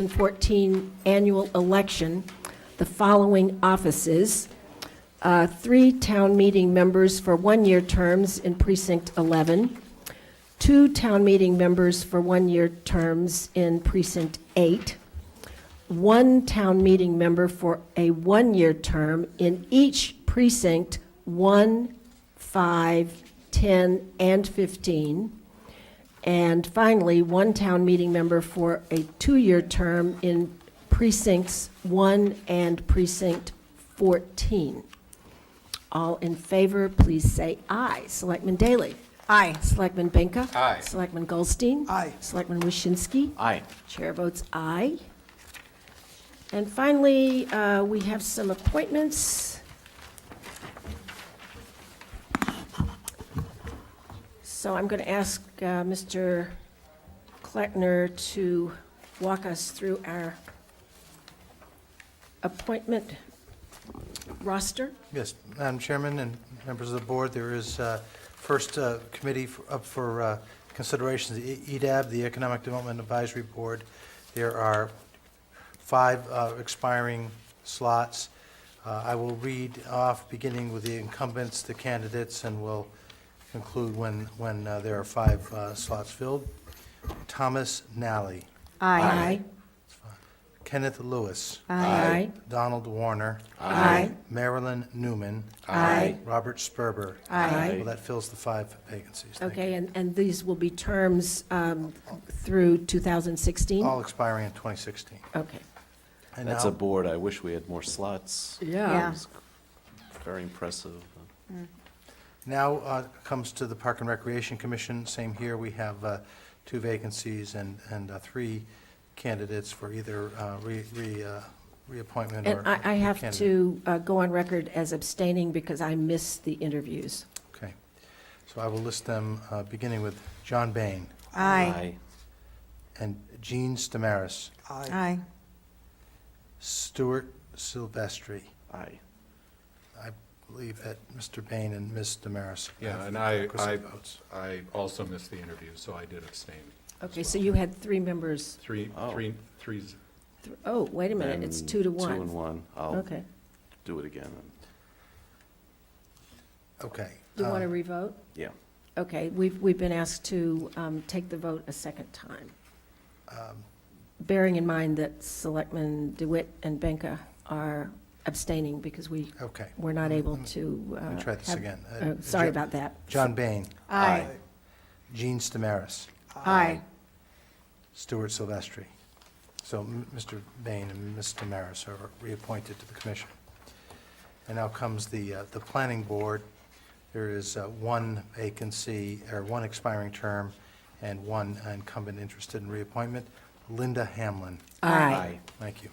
2014 annual election, the following offices. Uh, Three town meeting members for one-year terms in Precinct 11, two town meeting members for one-year terms in Precinct 8, one town meeting member for a one-year term in each precinct, 1, 5, 10, and 15. And finally, one town meeting member for a two-year term in precincts 1 and precinct 14. All in favor, please say aye. Selectman Daley? Aye. Selectman Benka? Aye. Selectman Goldstein? Aye. Selectman Waschinsky? Aye. Chair votes aye. And finally, uh, we have some appointments. So I'm going to ask uh, Mr. Kleckner to walk us through our appointment roster. Yes, Madam Chairman and members of the board, there is uh, first uh, committee f- up for uh, consideration, the E- EDAB, the Economic Development Advisory Board. There are five uh, expiring slots. Uh, I will read off, beginning with the incumbents, the candidates, and will conclude when, when uh, there are five uh, slots filled. Thomas Nally, Aye. Kenneth Lewis, Aye. Donald Warner, Aye. Marilyn Newman, Aye. Robert Sperber. Aye. Well, that fills the five vacancies. Thank you. Okay, and, and these will be terms um, through 2016? All expiring in 2016. Okay. And That's now- a board, I wish we had more slots. Yeah. It's Very impressive. Now uh, comes to the Park and Recreation Commission. Same here, we have uh, two vacancies and, and uh, three candidates for either uh, re, re, uh, reappointment or. And I, I have candidate. to uh, go on record as abstaining because I missed the interviews. Okay. So I will list them, uh, beginning with John Bain Aye. and Jean Stamaris, Aye. Stuart Silvestri. Aye. I believe that Mr. Bain and Ms. Damaris. Yeah, have and the I, requisite I, votes. I also missed the interview, so I did abstain. Okay, so you had three members, Three, Oh. three, three, z- th- oh, wait a minute, it's And two to Two and one. one. Oh. I'll Okay. do it again. Okay. Do you want to um, revote? Yeah. Okay, we've, we've been asked to um, take the vote a second time, um, bearing in mind that Selectmen DeWitt and Benka are abstaining because we Okay, were not able Let me- to. let me uh, try this have- again. Uh, uh, Sorry Jo- about that. John Bain, Aye. Gene Stamaris, Aye. Stuart Silvestri. So m- Mr. Bain and Ms. Damaris are reappointed to the commission. And now comes the, uh, the planning board. There is uh, one vacancy, or one expiring term, and one incumbent interested in reappointment, Linda Hamlin. Aye. Thank you.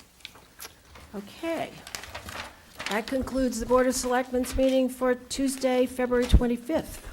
Okay. That concludes the Board of Selectmen's meeting for Tuesday, February 25th.